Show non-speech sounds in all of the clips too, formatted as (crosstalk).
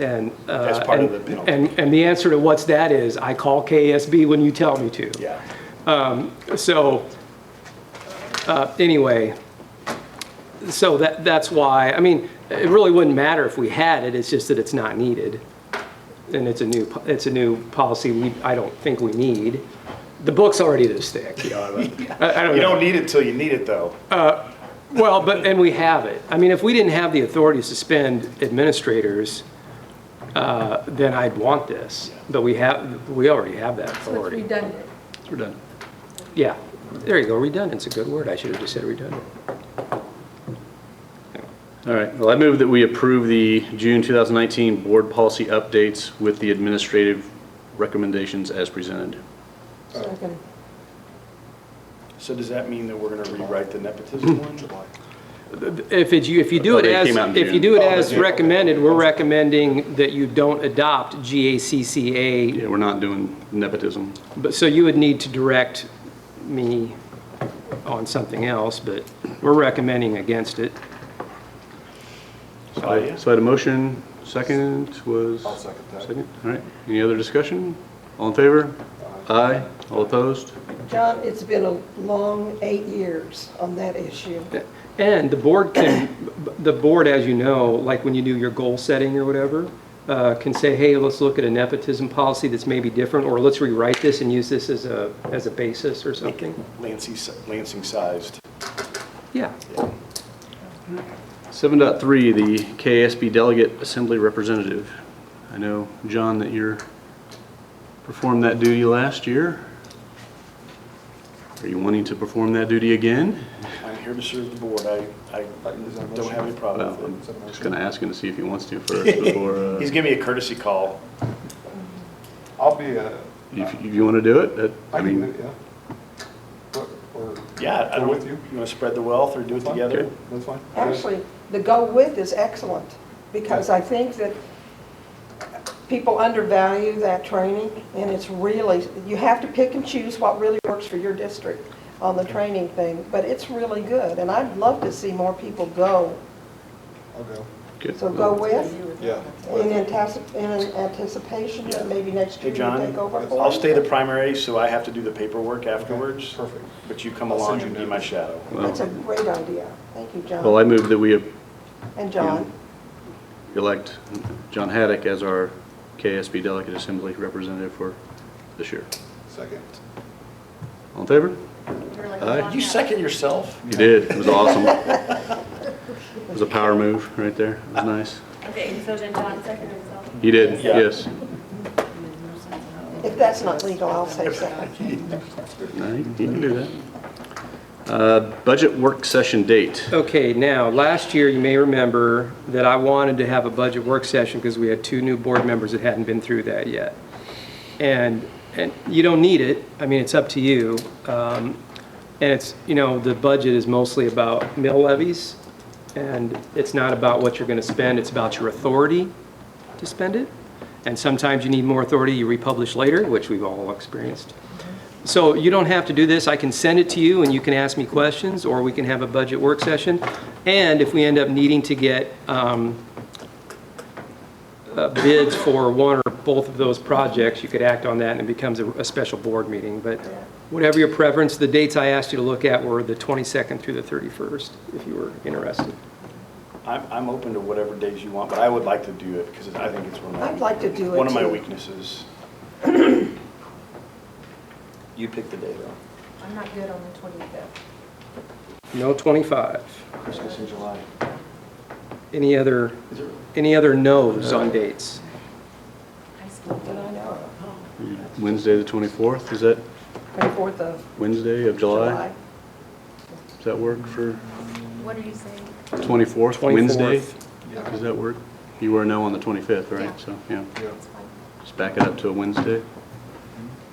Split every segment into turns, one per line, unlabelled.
And, uh,
That's part of
and-
the penalty.
And, and the answer to what's that is, I call KSB when you tell me to.
Yeah.
So, uh, anyway, so that, that's why, I mean, it really wouldn't matter if we had it, it's just that it's not needed. And it's a new, po- it's a new policy we, I don't think we need. The book's already this thick.
You (laughs) know,
I, I don't
you don't
know.
need it till you need it, though.
Well, but, and we have it. I mean, if we didn't have the authority to suspend administrators, uh, then I'd want this. But we have, we already have that
So it's
authority.
redundant.
We're done.
Yeah, there you go, redundant's a good word, I should have just said redundant.
All right, well, I move that we approve the June 2019 board policy updates with the administrative recommendations as presented.
Second.
So does that mean that we're gonna rewrite the nepotism one?
If it's, you, if you do it
Oh, they
as,
came out in
if you
June.
do it
Oh, they
as
did, okay.
recommended, we're recommending that you don't adopt GACCA,
Yeah, we're not doing nepotism.
but, so you would need to direct me on something else, but we're recommending against it.
Oh, yeah.
So I had a motion, second was?
I'll second that.
Second, all right. Any other discussion? All in favor? Aye. All opposed?
John, it's been a long eight years on that issue.
And the board can, the board, as you know, like when you do your goal setting or whatever, uh, can say, hey, let's look at a nepotism policy that's maybe different, or let's rewrite this and use this as a, as a basis or something.
Lansing, Lansing sized.
Yeah.
7.3, the KSB Delegate Assembly Representative. I know, John, that you're, performed that duty last year. Are you wanting to perform that duty again?
I'm here to serve the board. I, I don't have any
Well,
problem
I'm
with it.
just going to ask him to see if he wants to
(laughs)
first before, uh,
He's giving me a courtesy call.
I'll be, uh,
if if you want to do it. that-
I
I
can, do
mean,
it, yeah. Or- Or,
Yeah. I
Go
don't-
with you.
You wanna spread the wealth or do it
Fine.
together?
Okay.
that's fine.
Actually, the go with is excellent, because I think that people undervalue that training, and it's really, you have to pick and choose what really works for your district on the training thing, but it's really good, and I'd love to see more people go.
I'll go,
good.
So go with,
yeah.
in antici- in anticipation, that maybe next
Hey,
year you
John,
take over.
I'll stay the primary, so I have to do the paperwork afterwards.
Perfect.
But you come
I'll send
along
you
and be
notes.
my shadow.
Well,
That's a great idea. Thank you,
Well, I
John.
move that we uh,
And John.
elect John Haddock as our KSB Delegate Assembly Representative for this year.
Second.
All in favor?
You're like
Aye.
John
You
Hap-
second yourself?
You did. It was awesome. It was a power move right there. It was nice.
Okay, so then John seconded himself.
You did,
Yeah.
yes.
If that's not legal, I'll say second.
No, You you can do that. Uh, Budget work session date.
Okay, now, last year, you may remember that I wanted to have a budget work session because we had two new board members that hadn't been through that yet. And, and you don't need it, I mean, it's up to you. Um, And it's, you know, the budget is mostly about mill levies, and it's not about what you're going to spend, it's about your authority to spend it. And sometimes you need more authority, you republish later, which we've all experienced. So you don't have to do this. I can send it to you and you can ask me questions, or we can have a budget work session. And if we end up needing to get um, uh, bids for one or both of those projects, you could act on that and it becomes a a special board meeting. But whatever your preference, the dates I asked you to look at were the 22nd through the 31st, if you were interested.
I'm, I'm open to whatever days you want, but I would like to do it because I think it's one of my.
I'd like to do it,
One of my
too. (clears throat)
weaknesses. You pick the day though.
I'm not good on the 25th.
No 25.
Christmas in July.
Any other,
Is it really?
any other no's on dates?
I skipped
Did I
it.
know?
Wednesday, the 24th, is that
24th of
Wednesday of July?
July.
Does that work for
What are you saying?
24th, Wednesday?
24th.
Yeah.
Does that work? You were no on the 25th,
Yeah.
right? So, yeah,
Yeah.
It's fine.
just back it up to a Wednesday.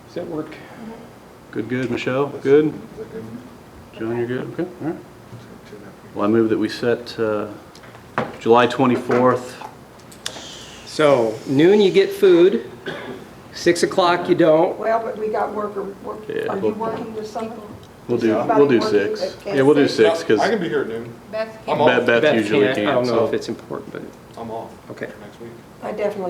Does that work?
Good, good, Michelle, good?
Is that good?
John, you're good? Okay, all right.
Two and a half.
Well, I move that we set uh, July 24th.
So noon you get food, six o'clock you don't.
Well, but we got worker, work-
Yeah.
are you working with someone?
We'll do,
Somebody
we'll do
working
six.
at
Yeah, we'll do
Kansas City?
six, because
I can be here at noon.
Beth
I'm
can't.
off.
Beth Beth usually
I
can,
don't know
so.
if it's important, but
I'm off
Okay.
next week.
I definitely